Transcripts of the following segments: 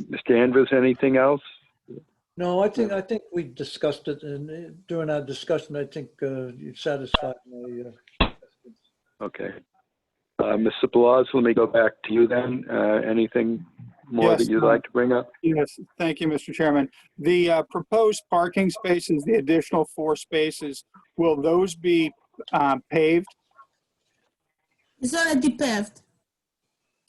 Mr. Andrews, anything else? No, I think, I think we discussed it and uh, during our discussion, I think uh, you satisfied my, uh, Okay. Uh, Mr. Blas, let me go back to you then. Uh, Anything more Yes, that you'd um, like to bring up? Yes, thank you, Mr. Chairman. The uh, proposed parking spaces, the additional four spaces, will those be um, paved? It's already paved.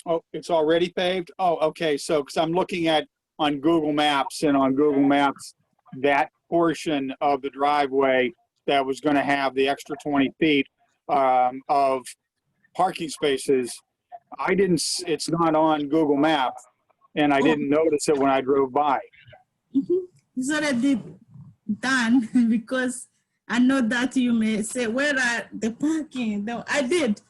Oh, it's already paved? Oh, okay, so, because I'm looking at, on Google Maps, and on Google Maps, that portion of the driveway that was going to have the extra 20 feet um, of parking spaces, I didn't, s- it's not on Google Maps, and I didn't notice it when I drove by. Mhm. It's already done because I know that you may say, where are the parking? No, I did.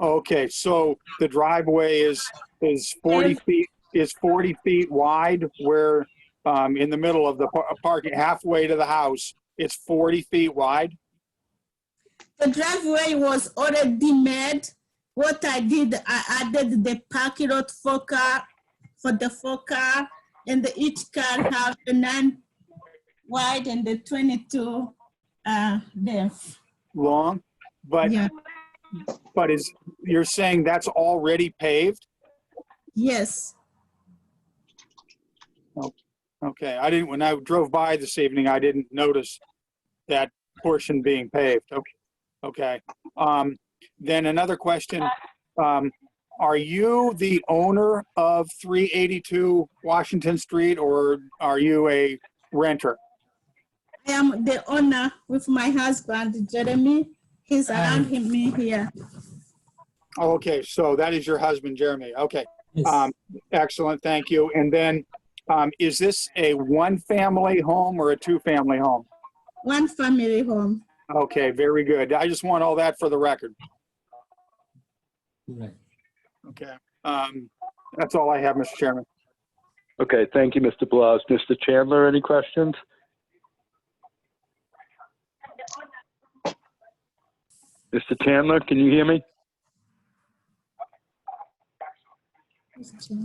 Okay, so the driveway is, is 40 feet, is 40 feet wide where, um, in the middle of the par- parking, halfway to the house, it's 40 feet wide? The driveway was already made. What I did, I added the parking lot for car, for the four car, and the- each car have the nine wide and the twenty-two, uh, depth. long, but, Yeah, but is, you're saying that's already paved? yes. Okay, I didn't, when I drove by this evening, I didn't notice that portion being paved. Okay, okay. Um, then another question, um, are you the owner of 382 Washington Street or are you a renter? I am the owner with my husband, Jeremy. He's around him, me here. Oh, okay, so that is your husband, Jeremy. Okay, um, excellent, thank you. And then, um, is this a one-family home or a two-family home? One family home. Okay, very good. I just want all that for the record. Okay. Um, that's all I have, Mr. Chairman. Okay, thank you, Mr. Blas. Mr. Chandler, any questions? Mr. Chandler, can you hear me?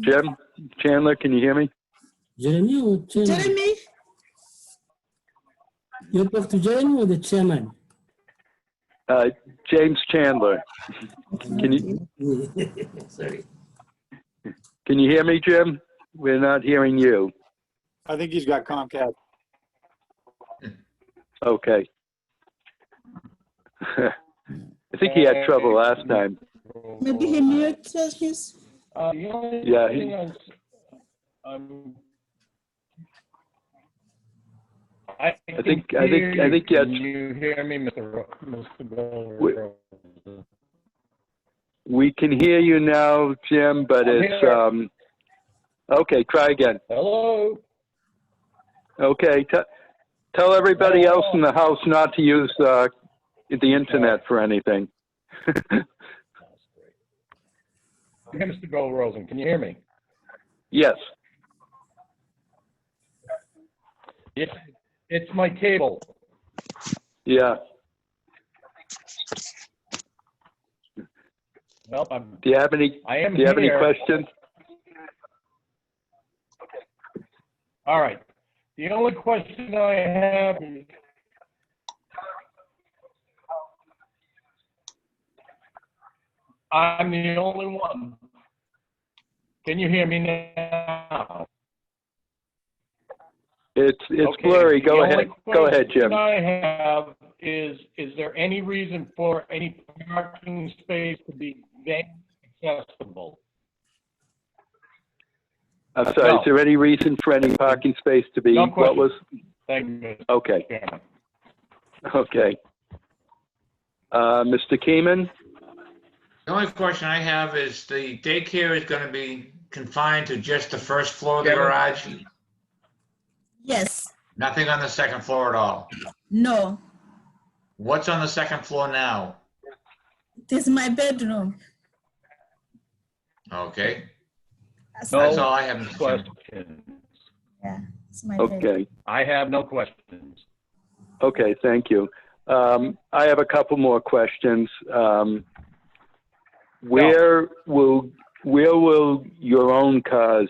Jim? Chandler, can you hear me? Jeremy or chairman? Jeremy, You talk to Jeremy or the chairman? Uh, James Chandler, can you, Sorry. can you hear me, Jim? We're not hearing you. I think he's got Comcast. Okay. I think he had trouble last time. maybe he muted his. Uh, the only Yeah, thing um, he- I'm s- I'm- I I think- I think- I think, yeah, Can you hear me, Mr. Ro- Mr. We- Goldberg? We can hear you now, Jim, but I'm it's, here. um, okay, try again. Hello? Okay, te- tell everybody Oh. else in the house not to use, uh, the internet for anything. Hey, Mr. Gold Rosen, can you hear me? Yes, Yeah, it's my cable. yeah, Well, I'm, do you have any, I am do you have any here. questions? All right. The only question I have is. I'm the only one. Can you hear me now? It's, it's Okay, blurry, go the only ahead, go ahead, question Jim. I have is, is there any reason for any parking space to be then accessible? I'm sorry, is there any reason for any parking space to be, No what was, Thank you, Mr. okay, Chairman. okay. Uh, Mr. Keeman? The only question I have is the daycare is going to be confined to just the first floor of the Kevin? garage? Yes, Nothing on the second floor at all? no, What's on the second floor now? it is my bedroom. Okay, No. Oh, that's all I have, Mr. Chairman. Questions? It's my bedroom. Okay, I have no questions. okay, thank you. Um, I have a couple more questions. Um, where will, where will your own cars